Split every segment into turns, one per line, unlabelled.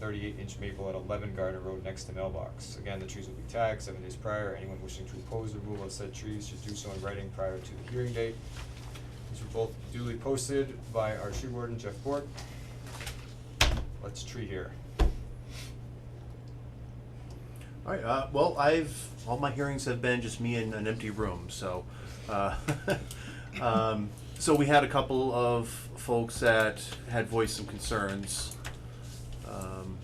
thirty-eight inch maple at eleven Garden Road next to mailbox. Again, the trees will be tagged seven days prior. Anyone wishing to oppose the removal of said trees should do so in writing prior to the hearing date. These were both duly posted by our tree warden, Jeff Bork. Let's tree here.
All right. Uh, well, I've all my hearings have been just me in an empty room. So, uh, um, so we had a couple of folks that had voiced some concerns. Um,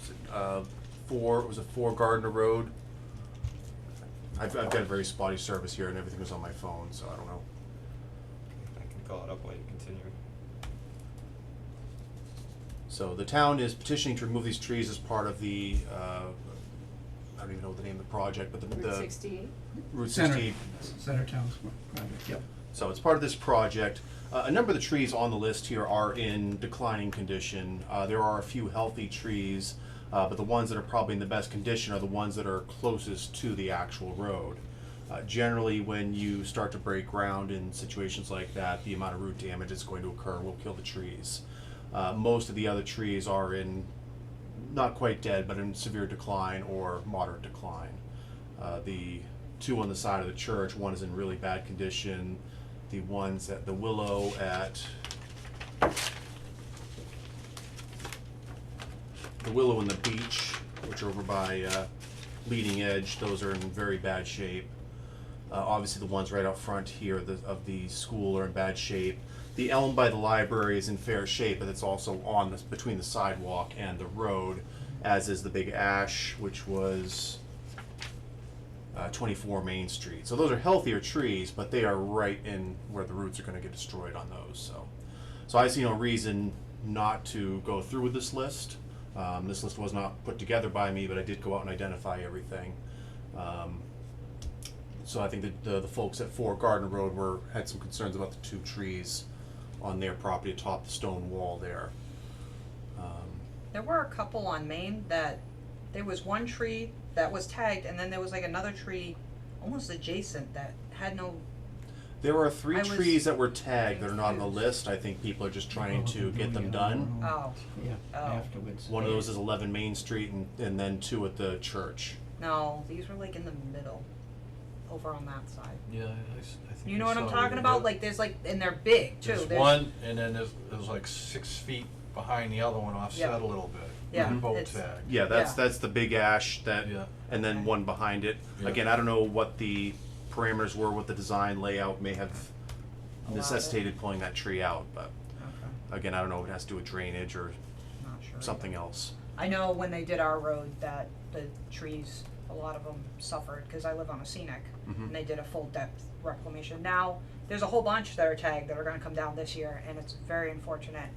was it, uh, four it was a four Gardner Road. I've, I've got a very spotty service here, and everything was on my phone, so I don't know.
I can call it up while you continue.
So the town is petitioning to remove these trees as part of the. Uh, I don't even know what the name of the project, but the
Route
the
sixty-eight?
Route
Center,
60
Center Town Square project, yep.
So it's part of this project. Uh, a number of the trees on the list here are in declining condition. Uh, there are a few healthy trees, uh, but the ones that are probably in the best condition are the ones that are closest to the actual road. Uh, generally, when you start to break ground in situations like that, the amount of root damage that's going to occur will kill the trees. Uh, most of the other trees are in not quite dead, but in severe decline or moderate decline. Uh, the two on the side of the church, one is in really bad condition. The ones at the willow at the willow and the beach, which are over by uh, leading edge, those are in very bad shape. Uh, obviously, the ones right out front here the, of the school are in bad shape. The elm by the library is in fair shape, but it's also on this between the sidewalk and the road, as is the big ash, which was uh, 24 Main Street. So those are healthier trees, but they are right in where the roots are going to get destroyed on those. So, so I see no reason not to go through with this list. Um, this list was not put together by me, but I did go out and identify everything. Um, so I think that the, the folks at Four Garden Road were had some concerns about the two trees on their property atop the stone wall there. Um,
There were a couple on Maine that, there was one tree that was tagged, and then there was like another tree almost adjacent that had no,
There are three
I was-
trees that were tagged that are not on the list. I think people are just trying to get them done.
oh,
Yeah,
Oh.
afterwards.
One of those is 11 Main Street, and, and then two at the church.
no, these were like in the middle, over on that side.
Yeah, I, I s- I think.
You know
I
what I'm
saw
talking
you.
about? Like, there's like, and they're big too,
There's
there's,
one, and then there's, there's like six feet behind the other one offset
Yep.
a little bit.
Yeah,
They're Both
it's-
tagged.
Yeah, that's
Yeah.
that's the big ash that,
Yeah.
and then
Okay.
one behind it.
Yeah.
Again, I don't know what the parameters were, what the design layout may have
Allowed it.
necessitated pulling that tree out. But
Okay,
again, I don't know if it has to do with drainage or
not sure. either.
something else.
I know when they did our road that the trees, a lot of them suffered, cause I live on a scenic,
Mhm.
and they did a full depth reclamation. Now, there's a whole bunch that are tagged that are gonna come down this year, and it's very unfortunate.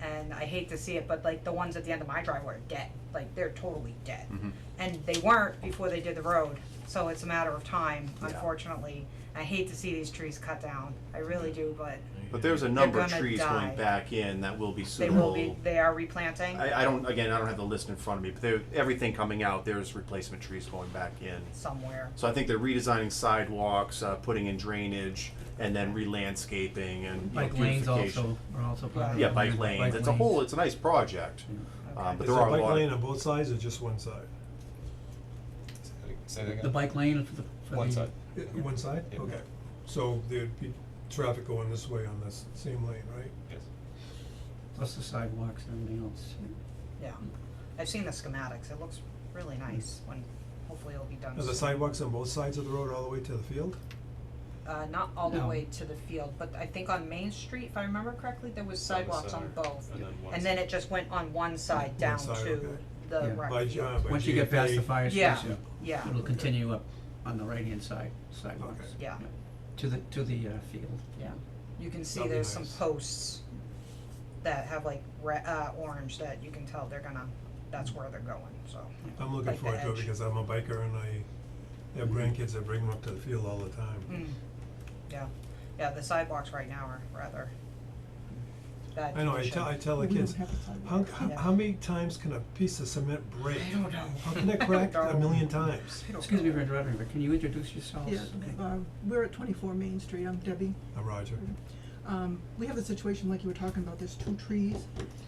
And I hate to see it, but like the ones at the end of my driveway are dead, like they're totally dead.
Mhm.
And they weren't before they did the road, so it's a matter of time,
Yeah.
unfortunately. I hate to see these trees cut down, I really
Mm-hmm.
do, but
But there's a
They're
number of
gonna
trees
die.
going back in that will be
they
suitable.
will be, they are replanting,
I, I don't, again, I don't have the list in front of me, but there, everything coming out, there's replacement trees going back in.
somewhere.
So I think they're redesigning sidewalks, uh, putting in drainage, and then re-landscaping and you know,
Bike lanes
beautification.
also, are also part of the.
Yeah, bike lanes, it's a whole, it's a nice project, um, but there are a lot.
Is there a bike lane on both sides or just one side?
Say that again.
The bike lane for the, for the.
One side.
Uh, One side?
Yeah.
Okay. So there'd be traffic going this way on this same lane, right?
Yes.
Plus the sidewalks and everything else.
Yeah, I've seen the schematics, it looks really nice when, hopefully it'll be done
Are the
soon.
sidewalks on both sides of the road all the way to the field?
Uh, not all the
No.
way to the field, but I think on Main Street, if I remember correctly, there was sidewalks on both.
And then one
And then it just went on one side down
side,
to
okay. uh,
the
Yeah.
rec
By
field.
John, by
Once you get past the
GFA.
fire
Yeah.
station,
Yeah,
it'll continue up on the right-hand side sidewalks.
Okay.
Yeah.
To the, to the, uh, field, yeah.
you can see
That'd be
there's some
nice.
posts that have like re- uh, orange that you can tell they're gonna, that's where they're going, so.
I'm
Like
looking
the
forward to it
edge.
because I'm a biker and I have
Mhm.
grandkids that bring them up to the field all the time.
Mm, yeah, yeah, the sidewalks right now are rather bad
I know, I
condition.
tell, I tell the kids, how, how,
Yeah.
how many times can a piece of cement break?
I don't know.
How can that
I
crack
don't
a
know.
million times?
I don't
Excuse me
know.
for interrupting, but can you introduce yourselves?
Yeah, uh, we're at twenty-four Main Street, I'm Debbie.
Uh, Roger.
Um, we have a situation like you were talking about, there's two trees